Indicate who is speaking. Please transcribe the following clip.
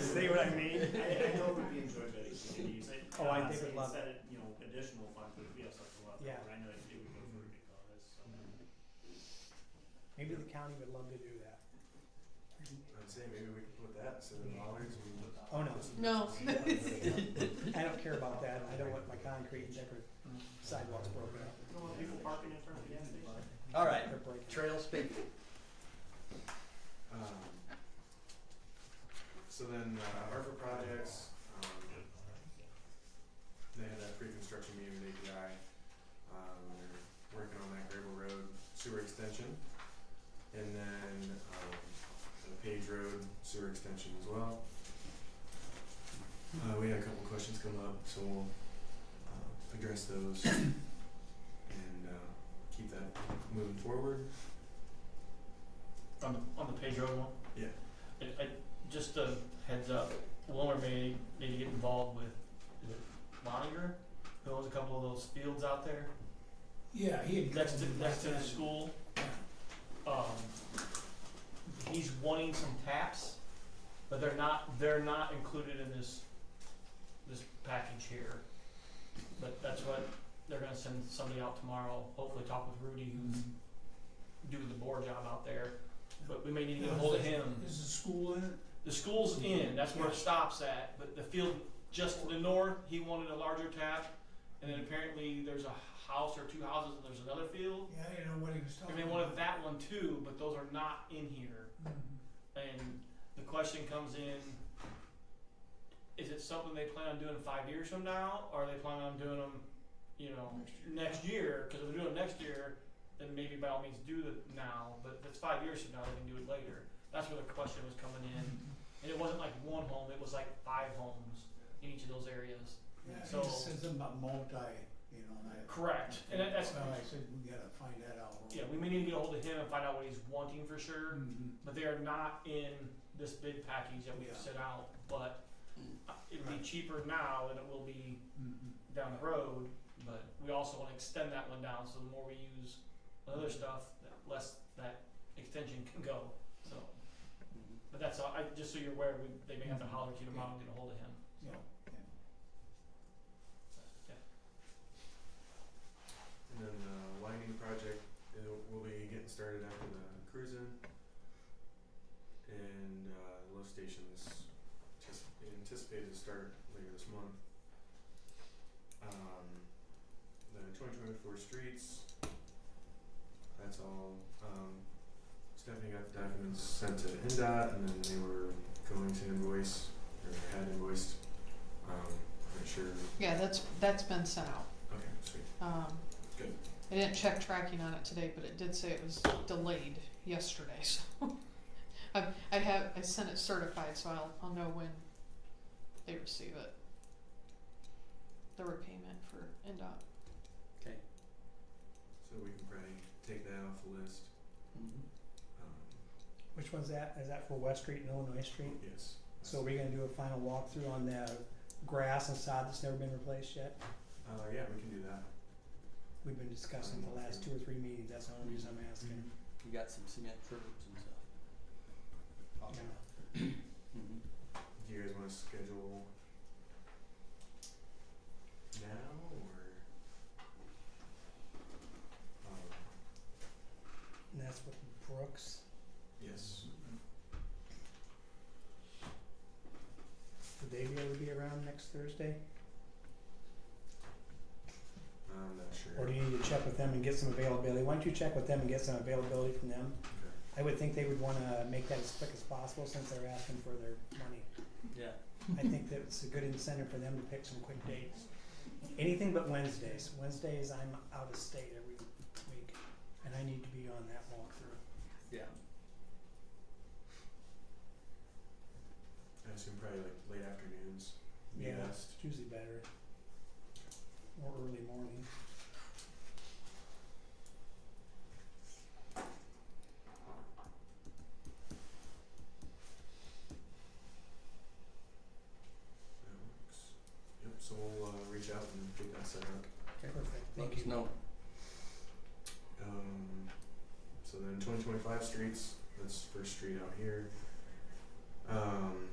Speaker 1: See what I mean?
Speaker 2: I, I know it would be enjoyed by the communities.
Speaker 1: Oh, I think it'd love
Speaker 2: Instead of, uh, you know, additional funds, but we have such a lot,
Speaker 1: Yeah.
Speaker 2: but I know it would go for a big cause, so.
Speaker 1: Maybe the county would love to do that.
Speaker 3: I'd say maybe we could put that instead of dollars. we-
Speaker 1: Oh, no.
Speaker 4: No.
Speaker 1: I don't care about that. I don't want my concrete and decorative sidewalks broken up.
Speaker 2: You don't want people parking in front of the gas station?
Speaker 5: All right,
Speaker 1: They're breaking.
Speaker 5: trail speak.
Speaker 3: Um, So then, uh, ARPA projects, um, they had that pre-construction meeting with API. Um, they're working on that Grable Road sewer extension. And then, um, the Page Road sewer extension as well. Uh, we had a couple questions come up, so we'll, uh, address those and, uh, keep that moving forward.
Speaker 6: On the, on the page road one?
Speaker 3: Yeah.
Speaker 6: I, I, just a heads up, Wilmer may need to get involved with, is it Moniger? Who owns a couple of those fields out there
Speaker 7: Yeah, he had.
Speaker 6: next to,
Speaker 7: called me
Speaker 6: next to the
Speaker 7: last night.
Speaker 6: school. Um, he's wanting some taps, but they're not, they're not included in this, this package here. But that's what, they're gonna send somebody out tomorrow, hopefully talk with Rudy who's doing the bore job out there. But we may need to get a hold of him.
Speaker 7: Is the school in it?
Speaker 6: The school's in, that's where it stops at, but the field just to the north, he wanted a larger tap. And then apparently there's a house or two houses and there's another field.
Speaker 7: Yeah, I didn't know what he was
Speaker 6: And
Speaker 7: talking
Speaker 6: they
Speaker 7: about.
Speaker 6: wanted that one too, but those are not in here.
Speaker 7: Mhm.
Speaker 6: And the question comes in, is it something they plan on doing five years from now? Or are they planning on doing them, you know, next year? Cause if they're doing it next year, then maybe by all means do it now, but if it's five years from now, they can do it later. That's where the question was coming in. And it wasn't like one home, it was like five homes in each of those areas.
Speaker 7: Yeah, he
Speaker 6: So-
Speaker 7: just said something about multi, you know, and I.
Speaker 6: Correct. And that- that's,
Speaker 7: Well, I said, we gotta find that out.
Speaker 6: yeah, we may need to get a hold of him and find out what he's wanting for sure,
Speaker 7: Mhm.
Speaker 6: but they are not in this bid package that we've
Speaker 7: Yeah.
Speaker 6: set out, but uh, it'd be
Speaker 7: Right.
Speaker 6: cheaper now than it will be
Speaker 7: Mhm.
Speaker 6: down the road, but we also wanna extend that one down, so the more we use
Speaker 7: Mm-hmm.
Speaker 6: other stuff, the less that extension can go, so. But that's all, I, just so you're aware, we, they may have
Speaker 7: Mm-hmm.
Speaker 6: to holler at you tomorrow and get a hold of him, so,
Speaker 7: Yeah.
Speaker 3: And
Speaker 6: yeah.
Speaker 3: then the lighting project, it will be getting started after the cruising. And uh, lift stations just anticipated to start later this month. Um, the twenty twenty four streets, that's all, um, Stephanie got the documents sent to NDOT and then they were going to invoice, or had invoiced, um, I'm sure,
Speaker 4: Yeah, that's, that's been sent out.
Speaker 3: okay, sweet.
Speaker 4: Um,
Speaker 3: Good.
Speaker 4: I didn't check tracking on it today, but it did say it was delayed yesterday, so. I, I have, I sent it certified, so I'll, I'll know when they receive it. The repayment for NDOT.
Speaker 5: Okay.
Speaker 3: So we can probably take that off the list.
Speaker 5: Mm-hmm.
Speaker 3: Um,
Speaker 1: Which one's that? Is that for West Street and Illinois Street?
Speaker 3: yes.
Speaker 1: So are we gonna do a final walkthrough on the grass and sod that's never been replaced yet?
Speaker 3: Uh, yeah, we can do that.
Speaker 1: We've been discussing the last two or three meetings. That's the only reason I'm asking.
Speaker 5: We got some cement curbs and stuff.
Speaker 1: Yeah. Mm-hmm.
Speaker 5: Mhm.
Speaker 3: Do you guys wanna schedule now or? Um,
Speaker 1: And that's with Brooks.
Speaker 3: yes.
Speaker 1: Would they be able to be around next Thursday?
Speaker 3: I'm not sure.
Speaker 1: Mm-hmm. Or do you need to check with them and get some availability? Why don't you check with them and get some availability from them?
Speaker 3: Okay.
Speaker 1: I would think they would wanna make that as quick as possible since they're asking for their money.
Speaker 5: Yeah.
Speaker 1: I think that it's a good incentive for them to pick some quick dates. Anything but Wednesdays. Wednesdays, I'm out of state every week, and I need to be on that walkthrough.
Speaker 5: Yeah.
Speaker 3: I assume probably like late afternoons. be
Speaker 1: Yeah.
Speaker 3: best.
Speaker 1: It's usually better, or early morning.
Speaker 3: That works. Yep, so we'll, uh, reach out and get that set up.
Speaker 1: Perfect,
Speaker 5: Let
Speaker 1: thank
Speaker 5: us
Speaker 1: you.
Speaker 5: know.
Speaker 3: Um, so then 2025 streets, that's first street out here. Um,